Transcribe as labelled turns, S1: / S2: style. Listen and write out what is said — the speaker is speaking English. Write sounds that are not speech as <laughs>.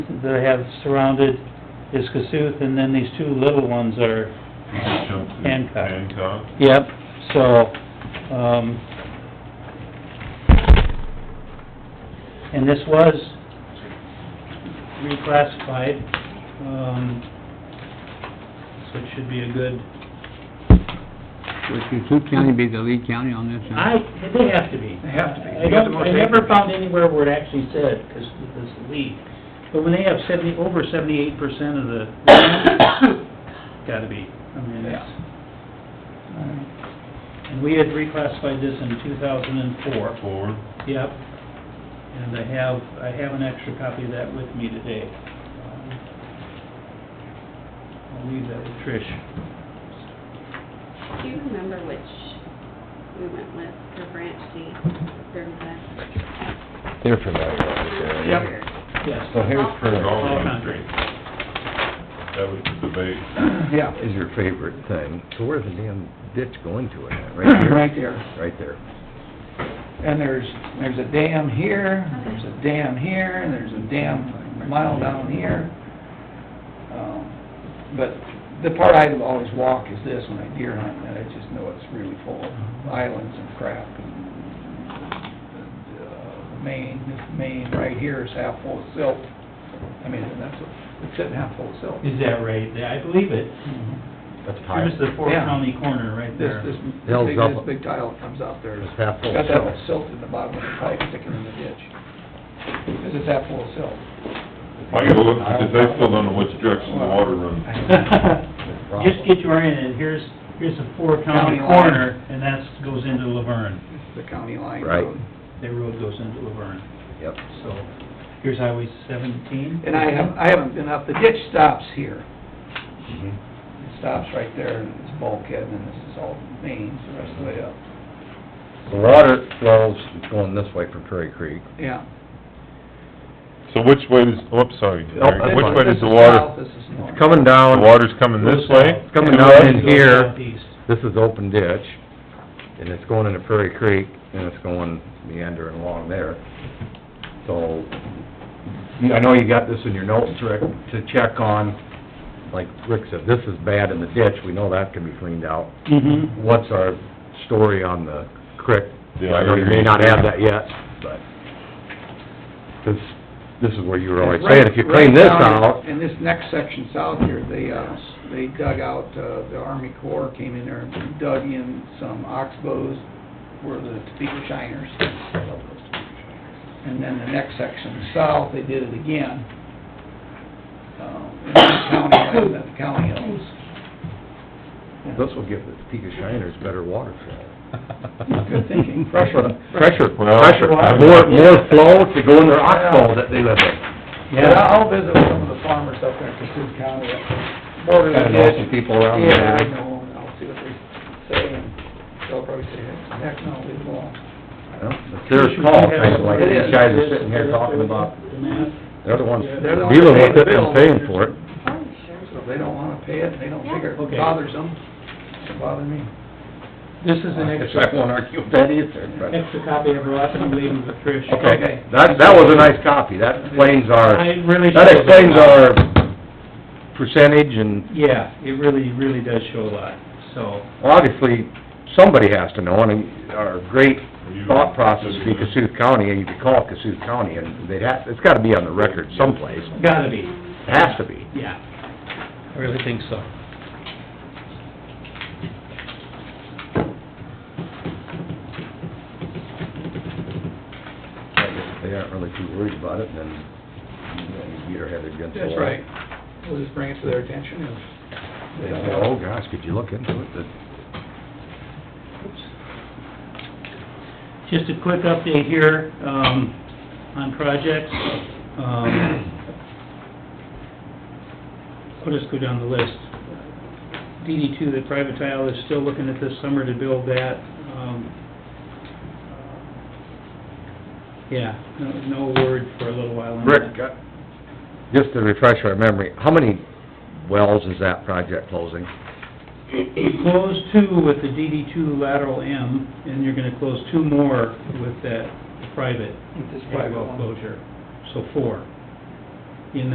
S1: that I have surrounded is Cassuth, and then these two little ones are Hancock.
S2: Hancock.
S1: Yep, so, um, and this was reclassified, um, so it should be a good,
S3: Would Cassup County be the lead county on this? huh?
S1: I, they have to be.
S4: They have to be.
S1: I
S4: They got the
S1: don't,
S4: most
S1: I never
S4: acreage.
S1: found anywhere where it actually said, because this lead, but when they have seventy, over seventy-eight percent of the, <coughs> gotta be, I mean, it's... And we had reclassified this in two thousand and four.
S2: Four.
S1: Yep. And I have, I have an extra copy of that with me today. Um, I'll leave that with Trish.
S5: Do you remember which we went with for branch C, thirty-five?
S6: They're familiar with it.
S1: Yep. Yes.
S6: So here's
S2: There's
S6: for,
S2: all
S1: All
S2: of them.
S1: country.
S2: That was the debate.
S4: Yeah,
S6: is your favorite thing. So where's the damn ditch going to it at? <clears throat> Right here?
S4: right there.
S6: Right there.
S4: And there's, there's a dam here, there's a dam here, and there's a dam a mile down here. Um, But the part I always walk is this when I deer hunt, and I just know it's really full of islands and crap. and, uh, Maine, this Maine right here is half full of silt. I mean, that's, what- it's sitting half full of silt.
S1: Is that right? Yeah, I believe it.
S6: That's high.
S1: Here's the four
S4: Yeah.
S1: county corner right
S4: This,
S1: there.
S4: this,
S6: Hill's
S4: big-
S6: up.
S4: this big tile comes out there.
S6: It's half full of
S4: Got that
S6: silt.
S4: much silt in the bottom of the pipe sticking in the ditch. Because it's half full of silt.
S2: I gotta look, because I still don't know which direction the water runs.
S1: <laughs> Just get you oriented, here's, here's the four county
S4: County line.
S1: corner, and that's goes into Laverne.
S4: It's the county line.
S6: Right.
S4: road.
S1: Their road goes into Laverne,
S6: Yep.
S1: so here's Highway seventeen.
S4: And I haven't, I haven't been up, the ditch stops here.
S6: Mhm.
S4: It stops right there, and it's bulkhead, and then this is all mains the rest of the way up.
S6: The water flows going this way from Prairie Creek.
S4: Yeah.
S2: So which way does, oops, sorry,
S6: Nope, that's
S2: which
S6: fine.
S2: way
S4: This
S2: does the
S4: is
S2: water,
S4: south, This is north.
S6: It's coming
S2: the
S6: down,
S2: water's coming this way?
S6: It's coming
S2: To
S6: down
S2: us?
S6: in here.
S1: Southeast.
S6: this is open ditch, and it's going into Prairie Creek, and it's going meandering along there. So, you- I know you got this in your notes, Rick, to check on, like Rick said, this is bad in the ditch, we know that can be cleaned out.
S1: Mm-hmm.
S6: What's our story on the creek?
S2: Yeah, I
S6: I know you may
S2: agree.
S6: not have that yet, but, 'cause this is where you were always
S4: Right-
S6: saying, if you
S4: right
S6: clean this
S4: down in-
S6: out,
S4: In this next section south here, they, uh, they dug out, uh, the Army Corps came in there and dug in some oxbows where the Topeka Shiners. And then the next section south, they did it again. Um, in the county, land that the county owns.
S6: this will give the Topeka Shiners better water flow.
S4: <laughs> Good thinking.
S6: Pressure, pressure,
S2: Well-
S6: pressure, more, more flow to go in their oxbow that they live in.
S4: Yeah, I'll visit with some of the farmers up there in Cassup County, up there, border
S6: Gotta
S4: of the
S6: know
S4: ditch.
S6: some people around
S4: Yeah,
S6: there.
S4: I know, and I'll see what they say, and they'll probably say, heck, heck no, we won't.
S6: Well, It's their call, kind of like
S4: It
S6: these
S4: is.
S6: guys are sitting here talking about, they're the ones
S4: They're the ones
S6: dealing
S4: paying
S6: with
S4: the
S6: it
S4: bill.
S6: and paying for it.
S5: Oh, sure.
S4: So if they don't wanna pay it, they don't figure
S1: Yeah. Okay.
S4: it bothers them, doesn't bother me.
S1: This is an
S6: I
S1: extra,
S6: won't argue with that either, but-
S1: extra copy I brought, I'm leaving with Trish.
S6: Okay, that, that was a nice copy, that explains our,
S1: I really.
S6: that
S1: shows a
S6: explains
S1: lot.
S6: our percentage and
S1: Yeah, it really, really does show a lot, so,
S6: obviously, somebody has to know, and our great
S2: You-
S6: thought process would be Cassuth County, and you could call it Cassuth County, and they'd have, it's gotta be on the record someplace,
S1: gotta be,
S6: it has to be.
S1: yeah. I really think so.
S6: They aren't really too worried about it, and then, you know, you beat our head against the wall.
S4: That's right, we'll just bring it to their attention if
S6: They say, oh gosh, could you look into it, But
S1: Just a quick update here, um, on projects. Um, I'll just go down the list. DD two, the private tile, is still looking at this summer to build that. Um, Yeah, no, no word for a little while on that.
S6: Rick, uh, just to refresh our memory, how many wells is that project closing?
S1: Close two with the DD two lateral M, and you're gonna close two more with that private
S4: with this
S1: head
S4: private
S1: well
S4: one.
S1: closure, so four.